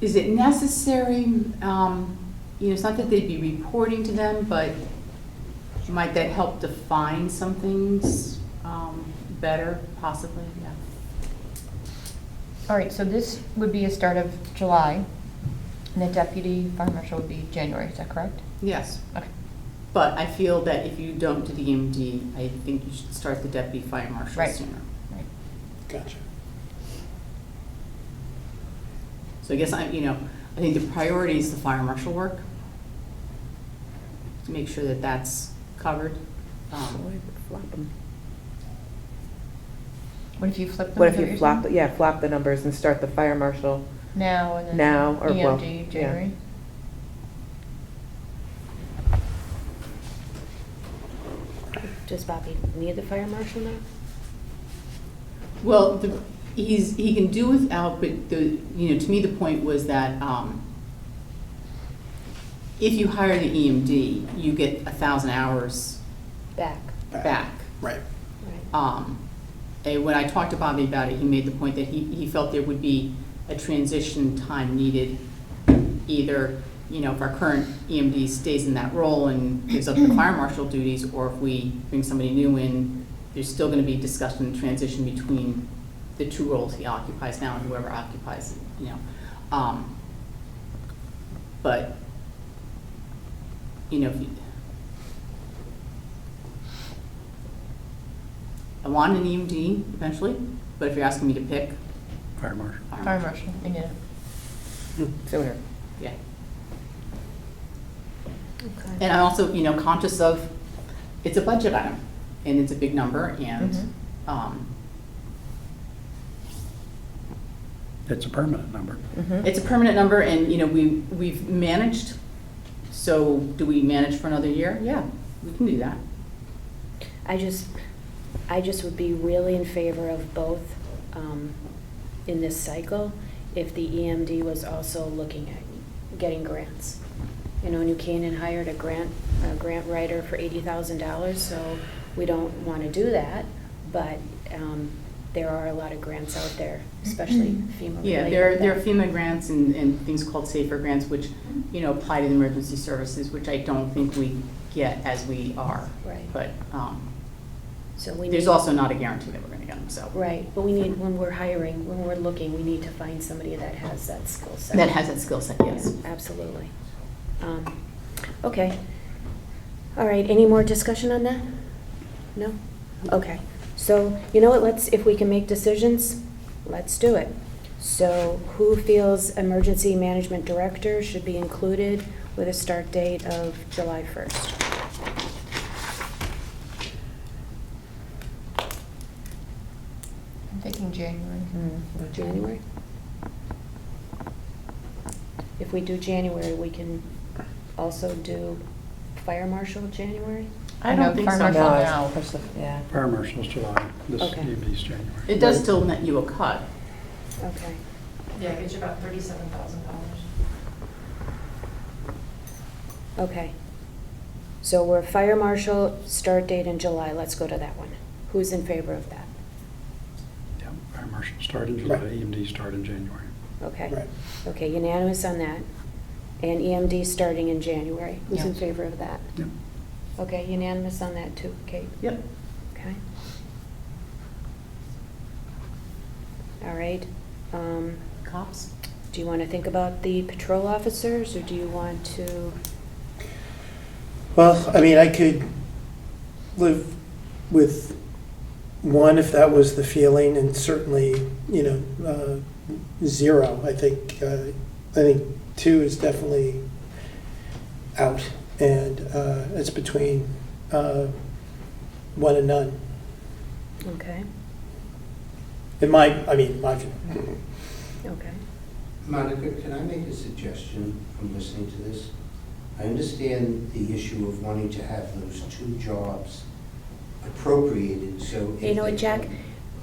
is it necessary, um, you know, it's not that they'd be reporting to them, but might that help define some things, um, better possibly, yeah? All right, so this would be a start of July, and the deputy fire marshal would be January, is that correct? Yes, Okay. but I feel that if you don't do the EMD, I think you should start the deputy fire marshal Right. sooner. Right. Gotcha. So I guess I'm, you know, I think the priority is the fire marshal work. To make sure that that's covered. Um, Flop 'em. What if you flip them? What is if that you you're flop, saying? yeah, flop the numbers and start the fire marshal? Now and then. Now or well, yeah. EMD, January. Does Bobby need the fire marshal now? Well, the- he's, he can do without, but the, you know, to me, the point was that um, if you hire the EMD, you get a thousand hours Back, back. Right. right. Um, And when I talked to Bobby about it, he made the point that he, he felt there would be a transition time needed. Either, you know, if our current EMD stays in that role and gives up the fire marshal duties, or if we bring somebody new in, there's still gonna be discussion and transition between the two roles he occupies now and whoever occupies, it, you know. Um, But, you know, if you, I want an EMD eventually, but if you're asking me to pick, Fire marshal. fire Fire marshal. marshal, yeah. Sooner. Yeah, Okay. and I'm also, you know, conscious of, it's a budget item, and it's a big number, and, Mhm. um, It's a permanent number. Mhm. it's a permanent number, and, you know, we, we've managed, so do we manage for another year? Yeah, we can do that. I just, I just would be really in favor of both um, in this cycle if the EMD was also looking at getting grants. You know, New Canaan hired a grant, a grant writer for eighty thousand dollars, so we don't want to do that. But um, there are a lot of grants out there, especially FEMA related. Yeah, there are, there are that- FEMA grants and, and things called safer grants, which, you know, apply to the emergency services, which I don't think we get as we are. Right. But, um, So we there's need- also not a guarantee that we're gonna get them, so. Right, but we need, when we're hiring, when we're looking, we need to find somebody that has that skill set. That has that skill set, yes. Absolutely. Um, Okay. All right, any more discussion on that? No? Okay. So, you know what, let's, if we can make decisions, let's do it. So who feels emergency management director should be included with a start date of July 1st? I'm thinking January. Mhm. January? If we do January, we can also do fire marshal January? I know don't think fire so. marshal No, it's now. push Oh, the- Yeah. Fire marshal's July, this Okay. EMD's January. It does still net you a cut. Okay. Yeah, it gives you about thirty-seven thousand dollars. Okay. So we're fire marshal, start date in July, let's go to that one. Who's in favor of that? Yep, Fire marshal start in July, E Right. EMD start in January. Okay. Right. Okay, unanimous on that. And EMD starting in January, who's in Yeah. favor of that? Yep. Okay, unanimous on that too, Kate? Yep. Okay. All right. Um, Cops? Do you want to think about the patrol officers, or do you want to? Well, I mean, I could live with one if that was the feeling, and certainly, you know, uh, zero. I think uh, I think two is definitely out, and uh, it's between uh, one and none. Okay, In my, I mean, my view. okay. Monica, can I make a suggestion from listening to this? I understand the issue of wanting to have those two jobs appropriated, so. if You know what, they- Jack?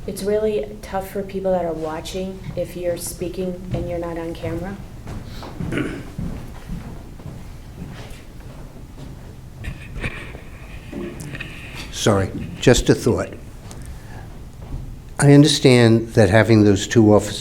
It's really tough for people that are watching if you're speaking and you're not on camera. Sorry, just a thought. I understand that having those two officers